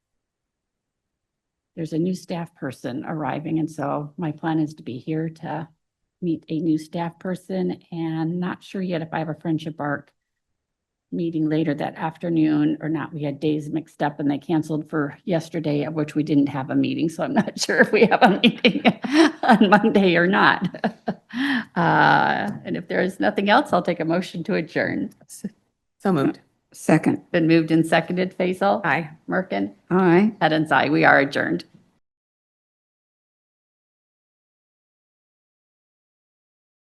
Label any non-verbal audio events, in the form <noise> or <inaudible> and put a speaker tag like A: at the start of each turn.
A: there's a new staff person arriving, and so my plan is to be here to meet a new staff person, and not sure yet if I have a Friendship Arc meeting later that afternoon or not. We had days mixed up and they canceled for yesterday, of which we didn't have a meeting, so I'm <laughs> not sure if we have a meeting <laughs> on Monday or not. <laughs> Uh, and if there is nothing else, I'll take a motion to adjourn.
B: So moved.
C: Second.
A: Been moved and seconded, Faisal?
B: Aye.
A: Merkin?
C: Aye.
A: Head and I, we are adjourned.